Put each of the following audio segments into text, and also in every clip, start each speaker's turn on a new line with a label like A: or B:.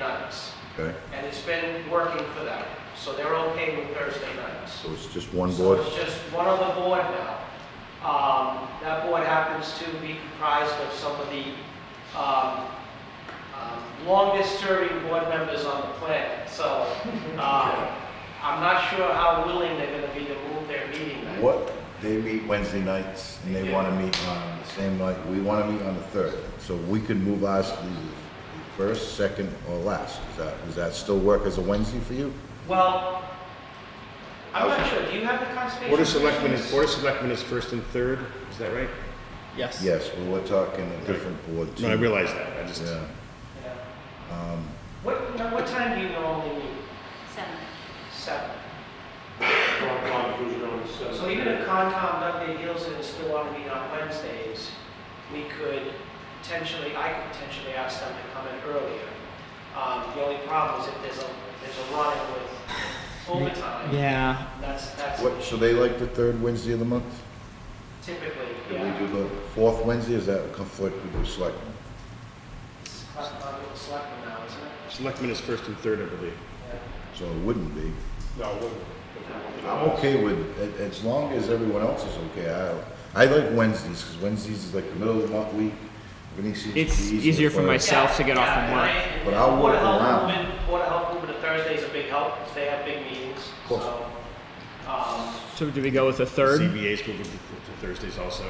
A: nights,
B: okay?
A: and it's been working for them, so they're okay with Thursday nights.
B: So it's just one
A: So
B: board?
A: it's just one other board now. Um, That board happens to be comprised of some of the um, um, longest-serving board members on the planet, so um, I'm not sure how willing they're going to be to move their meeting night.
B: What, they meet Wednesday nights, and they wanna meet on the same night, we wanna meet on the third. So we could move ours to the first, second, or last. Is that, does that still work as a Wednesday for you?
A: Well, I'm not sure, do you have the conservation?
C: Board of Selectmen is,
A: Commission's-
C: Board of Selectmen is first and third, is that right?
D: Yes.
B: Yes, well, we're talking a different board too.
C: No, I realize that, I just,
B: Yeah,
A: Yeah.
B: um,
A: What, now, what time do you normally meet?
E: Seven.
A: Seven.
F: Concom is usually on the seventh.
A: So even if Concom dug their heels in and still want to meet on Wednesdays, we could potentially, I could potentially ask them to come in earlier. Um, the only problem is if there's a, if there's a run with overtime,
D: Yeah.
A: that's, that's
B: what, so they like the third Wednesday of the month?
A: typically,
B: Can we
A: yeah.
B: do the fourth Wednesday, is that a conflict with the selectmen?
A: It's Concom with the selectmen now, isn't it?
C: Selectmen is first and third, I believe.
A: Yeah.
B: So it wouldn't be.
F: No, it wouldn't.
B: I'm okay with, a- as long as everyone else is okay, I, I like Wednesdays, because Wednesdays is like the middle of the month week. Everything seems to
D: It's
B: be
D: easier for
B: us.
D: myself. Self to get off
A: Yeah,
D: from
A: and
D: work.
A: I- and
B: But I'll
A: Board of
B: work
A: Health
B: around.
A: movement- Board of Health movement to Thursday's a big help, because they have big meetings,
B: course.
A: so. Um,
D: So do we go with a third?
C: ZBA's moving to to Thursdays also.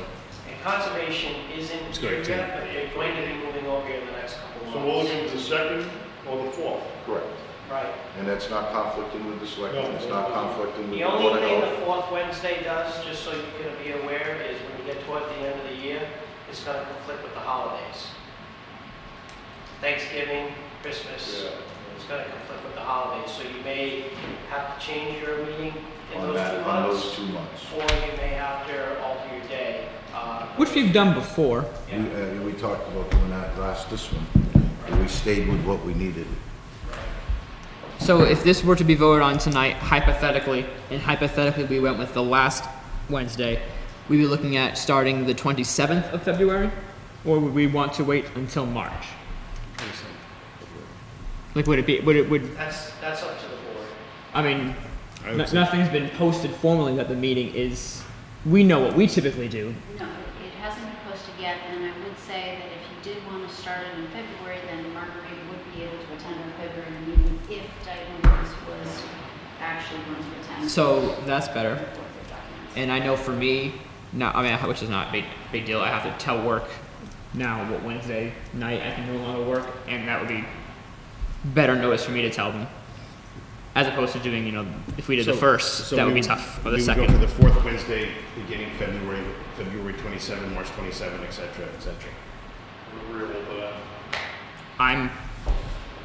A: And conservation isn't
C: It's
A: here
C: going to.
A: yet, but they're going to be moving over here in the next couple of months.
F: So we're looking at the second or the fourth?
B: Correct,
A: Right.
B: and that's not conflicting with the selectmen,
F: No.
B: it's not conflicting with
A: The
B: the board
A: only
B: of
A: thing the
B: health.
A: fourth Wednesday does, just so you're gonna be aware, is when you get towards the end of the year, it's gonna conflict with the holidays. Thanksgiving, Christmas, it's gonna conflict with the holidays, so you may have to change your meeting in
B: On
A: those two
B: that, on those
A: months,
B: two months.
A: or you may have to alter your day. uh,
D: Which we've done before.
A: yeah.
B: We, uh, we talked about doing that last, this one, and we stayed with what we needed.
D: So if this were to be voted on tonight, hypothetically, and hypothetically we went with the last Wednesday, we'd be looking at starting the 27th of February? Or would we want to wait until March? Like, would it be, would it, would,
A: That's, that's up to the board.
D: I mean,
C: I
D: no-
C: would say-
D: nothing's been posted formally that the meeting is, we know what we typically do.
E: No, it hasn't been posted yet, and I would say that if you did want to start it in February, then Marguerite would be able to attend our February meeting if Diane Lewis was actually going to attend.
D: So that's better.
E: Documents.
D: And I know for me, no, I mean, which is not a big, big deal. I have to tell work now what Wednesday night I can no longer work, and that would be better notice for me to tell them, as opposed to doing, you know, if we did the
C: So-
D: first,
C: so
D: that
C: we
D: would be tough, or the
C: we would
D: second.
C: go for the fourth Wednesday, beginning February, February 27, March 27, et cetera, et cetera.
F: We're agreeable to that.
D: I'm,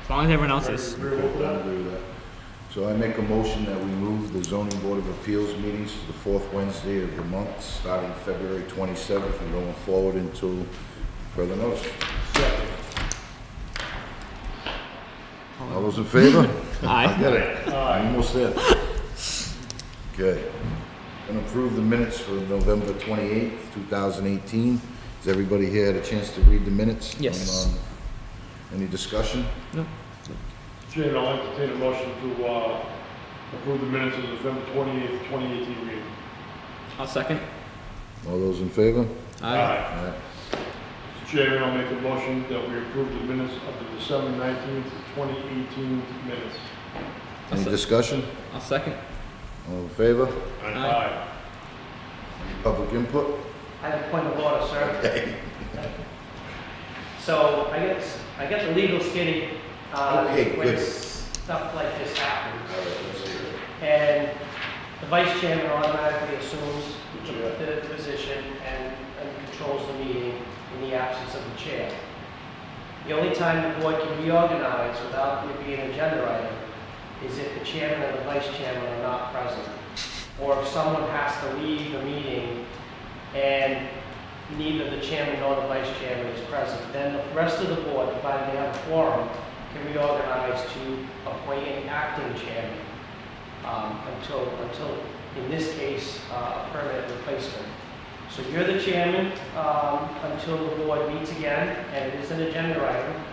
D: as long as everyone else is.
B: Okay, I agree with that. So I make a motion that we move the zoning board of appeals meetings to the fourth Wednesday of the month, starting February twenty-seventh and going forward until further notice. All those in favor?
D: Aye.
B: Get it? Almost there. Okay. And approve the minutes for November twenty-eighth, two thousand eighteen. Has everybody here had a chance to read the minutes?
D: Yes.
B: Um, Any discussion?
D: No.
F: Chairman, I'll entertain a motion to uh, approve the minutes of November 28th, 2018 meeting.
D: I'll second.
B: All those in favor?
D: Aye.
B: Aye.
F: Mr. Chairman, I'll make a motion that we approve the minutes of the December 19th, 2018 minutes.
B: Any discussion?
D: I'll second.
B: All in favor?
D: Aye.
F: Aye.
B: Public input?
A: I have a point of order, sir. So I guess, I guess the legal skinny, uh,
B: Okay,
A: when
B: good. Oh,
A: stuff like this happens. And the vice chairman automatically assumes the the position and, and controls the meeting in the absence of the chair. The only time the board can reorganize without it being an agenda item is if the chairman and the vice chairman are not present. Or if someone has to leave the meeting and neither the chairman nor the vice chairman is present, then the rest of the board, provided they have a quorum, can reorganize to appoint an acting chairman um, until, until, in this case, uh, a permanent replacement. So you're the chairman um, until the board meets again, and it is an agenda item.